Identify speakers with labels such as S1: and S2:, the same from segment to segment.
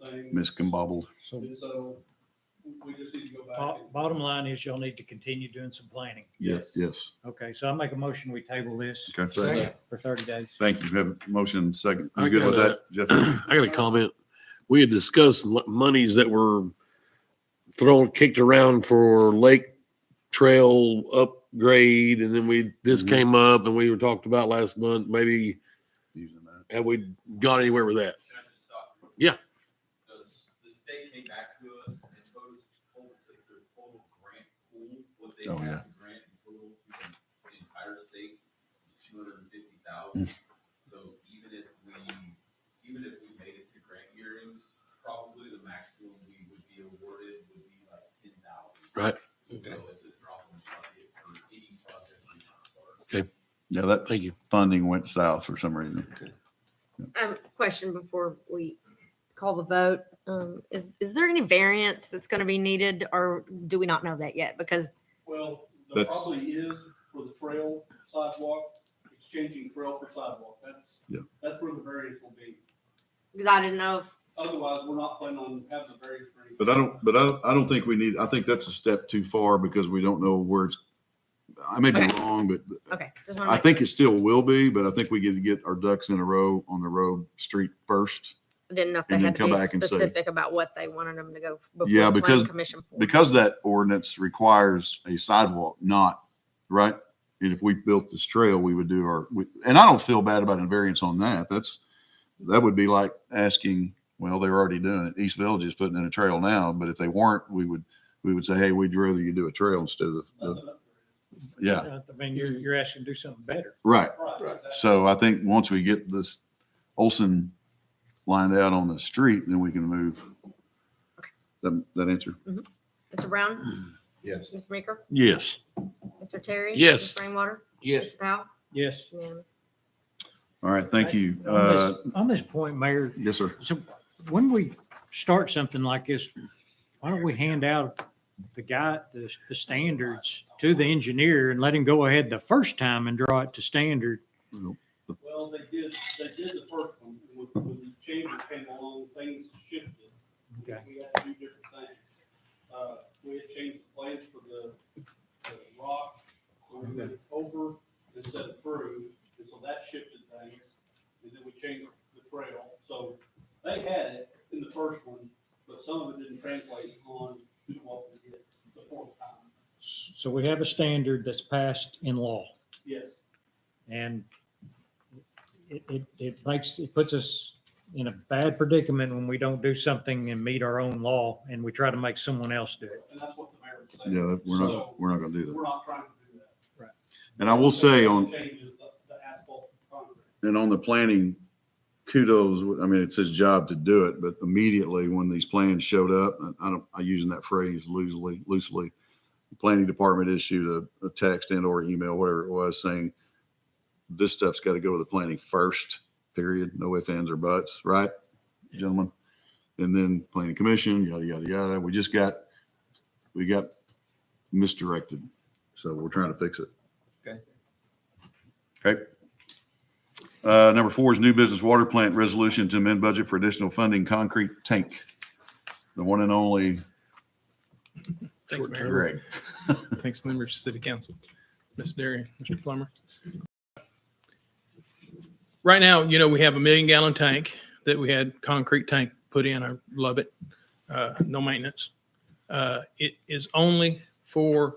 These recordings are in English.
S1: thing,
S2: miscombobbled.
S3: So
S1: and so we just need to go back.
S4: Bo- Bottom line is y'all need to continue doing some planning.
S2: Yes,
S1: Yes.
S2: yes.
S4: Okay, so I make a motion, we table this
S2: Okay.
S3: Second.
S4: for thirty days.
S2: Thank you. We Have a motion second.
S5: I
S2: You good
S5: got
S2: with that, Jeff?
S5: I got a comment. We had discussed l- monies that were thrown, kicked around for lake trail upgrade, and then we, this
S2: Mhm.
S5: came up and we were talked about last month, maybe
S2: Using that.
S5: have we gone anywhere with that?
S6: Can I just stop?
S5: Yeah.
S6: Because the state came back to us and told us, told us that their total grant pool, what they
S2: Oh, yeah.
S6: have to grant in total to the entire state is two hundred and fifty
S2: Mm.
S6: thousand. So even if we, even if we made it to grant hearings, probably the maximum we would be awarded would be like ten thousand.
S5: Right.
S6: So it's a drop in the bucket for any project we start.
S2: Yeah, that
S5: Thank you.
S2: funding went south for some reason.
S7: I have a question before we call the vote. Um, is, is there any variance that's going to be needed or do we not know that yet? Because
S1: Well, there
S2: That's-
S1: probably is for the trail sidewalk, exchanging trail for sidewalk. That's,
S2: Yeah.
S1: that's where the variance will be.
S7: because I didn't know if
S1: Otherwise, we're not planning on having a variance for anything.
S2: But I don't, but I, I don't think we need, I think that's a step too far because we don't know where it's, I may be
S7: Okay.
S2: wrong, but
S7: Okay, just want to
S2: I think it still will be, but I think we get to get our ducks in a row on the road street first.
S7: didn't know if they
S2: and then
S7: had to
S2: come
S7: be
S2: back and say-
S7: specific about what they wanted them to go before
S2: Yeah,
S7: the
S2: because-
S7: planning commission. for.
S2: Because that ordinance requires a sidewalk, not, right? And if we built this trail, we would do our, we- and I don't feel bad about a variance on that. That's, that would be like asking, well, they're already doing it. East Village is putting in a trail now, but if they weren't, we would, we would say, hey, we'd rather you do a trail instead of,
S1: That's
S2: the
S1: an upgrade.
S2: yeah,
S4: Uh, I mean, you're, you're asking to do something better.
S2: right.
S1: Right, exactly.
S2: So I think once we get this Olson lined out on the street, then we can move. That, that answer?
S7: Mr. Brown,
S3: Yes.
S7: Mr. Meeker,
S5: Yes.
S7: Mr. Terry?
S5: Yes.
S7: Mr. Rainwater?
S3: Yes.
S7: Mr. Powell?
S4: Yes.
S7: Unanimous.
S2: All right, thank you.
S4: On
S2: Uh,
S4: this- on this point, Mayor,
S2: yes, sir.
S4: So when we start something like this, why don't we hand out the guy, the, the standards to the engineer and let him go ahead the first time and draw it to standard?
S1: Well, they did, they did the first one, when, when the changes came along, things shifted.
S4: Okay.
S1: We had to do different things. Uh, we had changed the plans for the, the rock, so we went over instead of through, and so that shifted things. And then we changed the trail, so they had it in the first one, but some of it didn't translate on to what we did the fourth time.
S4: So we have a standard that's passed in law
S1: Yes,
S4: and it, it, it makes, it puts us in a bad predicament when we don't do something and meet our own law and we try to make someone else do it.
S1: and that's what the mayor was saying.
S2: Yeah, that- we're
S1: So,
S2: not, we're not gonna do that.
S1: We're not trying to do that.
S2: And I will say on,
S1: Changes the, the asphalt to concrete.
S2: and on the planning, kudos, I mean, it's his job to do it, but immediately when these plans showed up, and I don't, I'm using that phrase loosely, loosely. the Planning department issued a, a text and or email, whatever it was, saying this stuff's got to go to the planning first, period, no ifs, ands or buts, right, gentlemen? And then planning commission, yada, yada, yada. We just got, we got misdirected. So we're trying to fix it. Okay. Uh, number four is new business water plant resolution to amend budget for additional funding concrete tank. The one and only
S8: Thanks, Mayor.
S2: Greg.
S8: Thanks, members of City Council. Ms. Derry, Mr. Plummer. Right now, you know, we have a million gallon tank that we had concrete tank put in. I love it. Uh, No maintenance. Uh, It is only for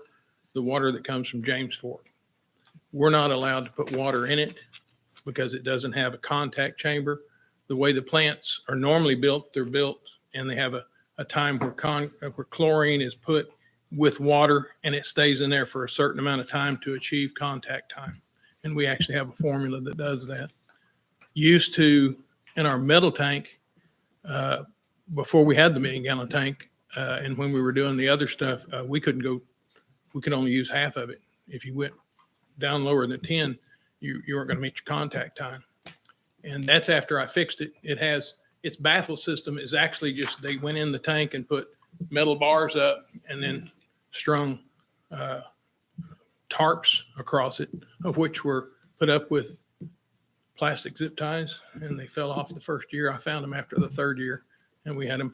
S8: the water that comes from James Fork. We're not allowed to put water in it because it doesn't have a contact chamber. The way the plants are normally built, they're built and they have a, a time where con, where chlorine is put with water and it stays in there for a certain amount of time to achieve contact time. And we actually have a formula that does that. Used to, in our metal tank, uh, before we had the million gallon tank, uh, and when we were doing the other stuff, uh, we couldn't go, we could only use half of it. If you went down lower than 10, you, you weren't going to meet your contact time. And that's after I fixed it. It has, its baffle system is actually just, they went in the tank and put metal bars up and then strung uh, tarps across it, of which were put up with plastic zip ties, and they fell off the first year. I found them after the third year, and we had them